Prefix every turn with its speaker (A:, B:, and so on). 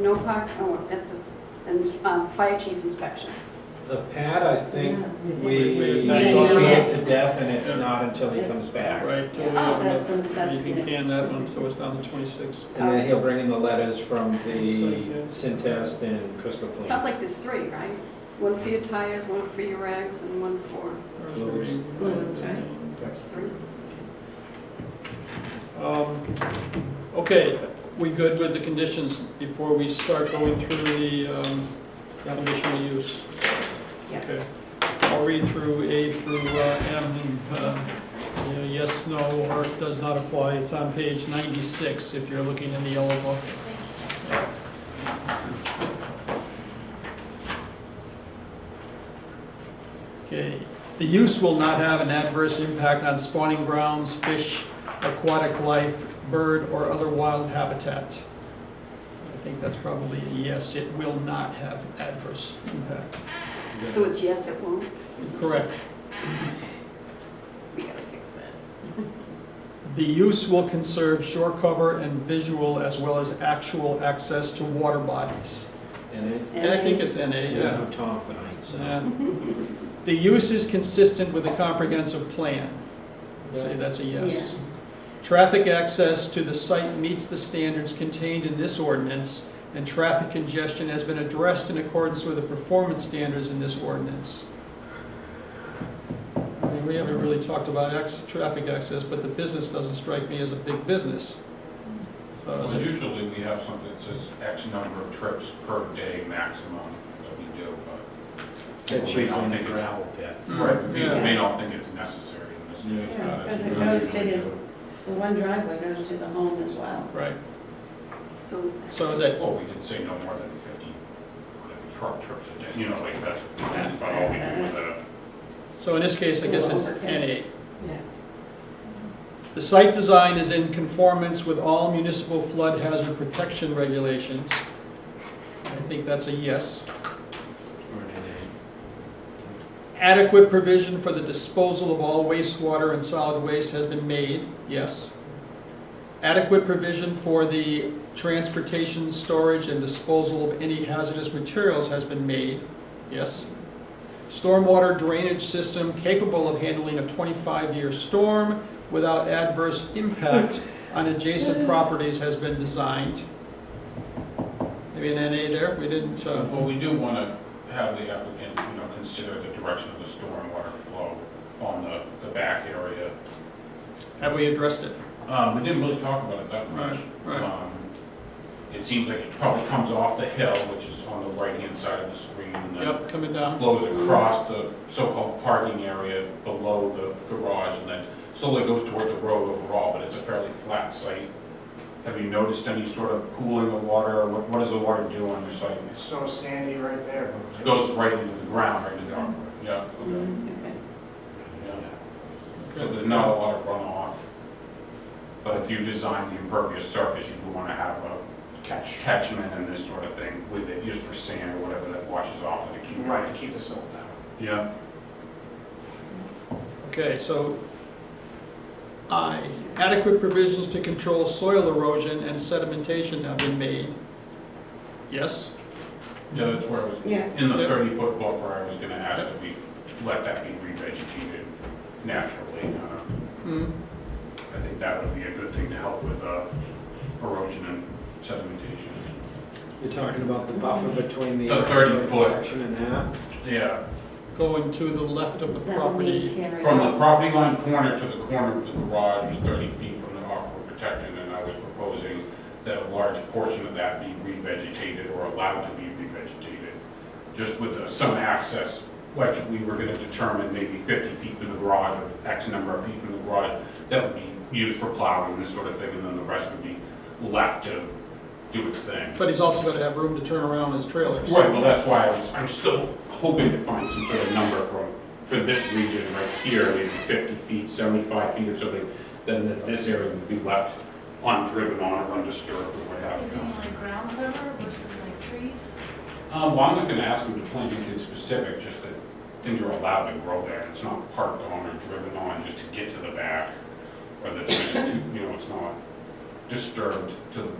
A: no park, oh, that's, this- and uh, fire chief inspection.
B: The pad, I think,
C: We-
B: we
C: we-
B: beat
A: Yeah,
B: it
A: yeah.
B: to death, and it's
C: Yeah.
B: not until he
A: Yes.
B: comes back.
C: Right,
A: Yeah,
C: totally
A: oh,
C: open
A: that's
C: up.
A: a- that's
C: You can
A: next.
C: can that one, so it's down to twenty-six.
B: And then he'll bring in the letters from the
C: Yeah.
B: Centest and Crystal Clean.
A: Sounds like there's three, right? One for your tires, one for your rags, and one for,
B: Fluids.
A: Fluids, right.
B: Okay.
A: three.
C: Um, Okay, we good with the conditions before we start going through the um, the conditional use?
A: Yeah.
C: Okay. I'll read through A through uh, M, uh, you know, yes, no, or does not apply. It's on page 96 if you're looking in the yellow book. Okay, the use will not have an adverse impact on spawning grounds, fish, aquatic life, bird, or other wild habitat. I think that's probably a yes, it will not have adverse impact.
A: So it's yes, it won't?
C: Correct.
A: We gotta fix that.
C: The use will conserve shore cover and visual as well as actual access to water bodies.
B: And it,
C: And I think it's NA, yeah.
B: yeah, Tom tonight, so.
C: And The use is consistent with the comprehensive plan. Say that's a yes. Traffic access to the site meets the standards contained in this ordinance, and traffic congestion has been addressed in accordance with the performance standards in this ordinance. I mean, we haven't really talked about acc- traffic access, but the business doesn't strike me as a big business. So I was
D: Well,
C: like,
D: usually we have something that says X number of trips per day maximum that we do, but.
B: It's
D: we
B: usually
D: don't
B: in the
D: think it's-
B: gravel pits.
D: Right, we
C: Yeah.
D: may not think it's necessary in this.
B: Yeah.
D: case,
E: Yeah,
D: but that's
E: because it
D: what we
E: goes to
D: usually
E: his-
D: do.
E: The one driveway goes to the home as well.
C: Right,
A: So is that.
C: so that,
D: Well, we could say no more than fifty truck trips a day, you know, like that's, that's about all we do with
E: That's-
D: that.
C: so in this case, I guess it's NA.
A: Yeah.
C: The site design is in conformance with all municipal flood hazard protection regulations. I think that's a yes.
B: Or an NA.
C: Adequate provision for the disposal of all wastewater and solid waste has been made, yes. Adequate provision for the transportation, storage, and disposal of any hazardous materials has been made, yes. Stormwater drainage system capable of handling a 25-year storm without adverse impact on adjacent properties has been designed. Maybe an NA there, we didn't, uh,
D: Well, we do want to have the applicant, you know, consider the direction of the stormwater flow on the, the back area.
C: have we addressed it?
D: Um, we didn't really talk about it that much.
C: Right, right.
D: Um, It seems like it probably comes off the hill, which is on the right-hand side of the screen, and then
C: Yep, coming down.
D: flows across the so-called parking area below the garage, and then slowly goes toward the road overall, but it's a fairly flat site. Have you noticed any sort of pooling of water, or what, what does the water do on your site?
F: It's so sandy right there.
D: It goes right into the ground, right into the ground, yeah,
E: Okay.
D: yeah. So there's not a lot of runoff, but if you design the impervious surface, you would wanna have a
F: Catch.
D: catchment and this sort of thing with it, just for sand or whatever that washes off of the key.
F: Right, to keep the silt down.
D: Yeah.
C: Okay, so I, adequate provisions to control soil erosion and sedimentation have been made. Yes?
D: Yeah, that's where I was,
E: Yeah.
D: in the
C: Yeah.
D: thirty-foot buffer, I was gonna ask that we let that be revegetated naturally. Uh,
C: Hmm,
D: I think that would be a good thing to help with uh, erosion and sedimentation.
B: You're talking about the buffer between the.
D: The 30 foot.
B: Protection and that?
D: Yeah,
C: Going to the left of the
E: That would mean
C: property.
E: tearing
D: from the
E: up.
D: property line corner to the corner of the garage was thirty feet from the aquifer protection, and I was proposing that a large portion of that be revegetated or allowed to be revegetated, just with uh, some access, which we were gonna determine maybe fifty feet from the garage or X number of feet from the garage, that would be used for plowing and this sort of thing, and then the rest would be left to do its thing.
C: But he's also gonna have room to turn around his trailers.
D: Right, well, that's why I was, I'm still hoping to find some sort of number from, for this region right here, maybe fifty feet, seventy-five feet or something, then that this area would be left undriven on or undisturbed or what have
G: Anything
D: you.
G: like ground cover versus like trees?
D: Um, well, I'm not gonna ask them to plant anything specific, just that things are allowed to grow there, it's not parked on or driven on just to get to the back, or that, it's too- you know, it's not disturbed to the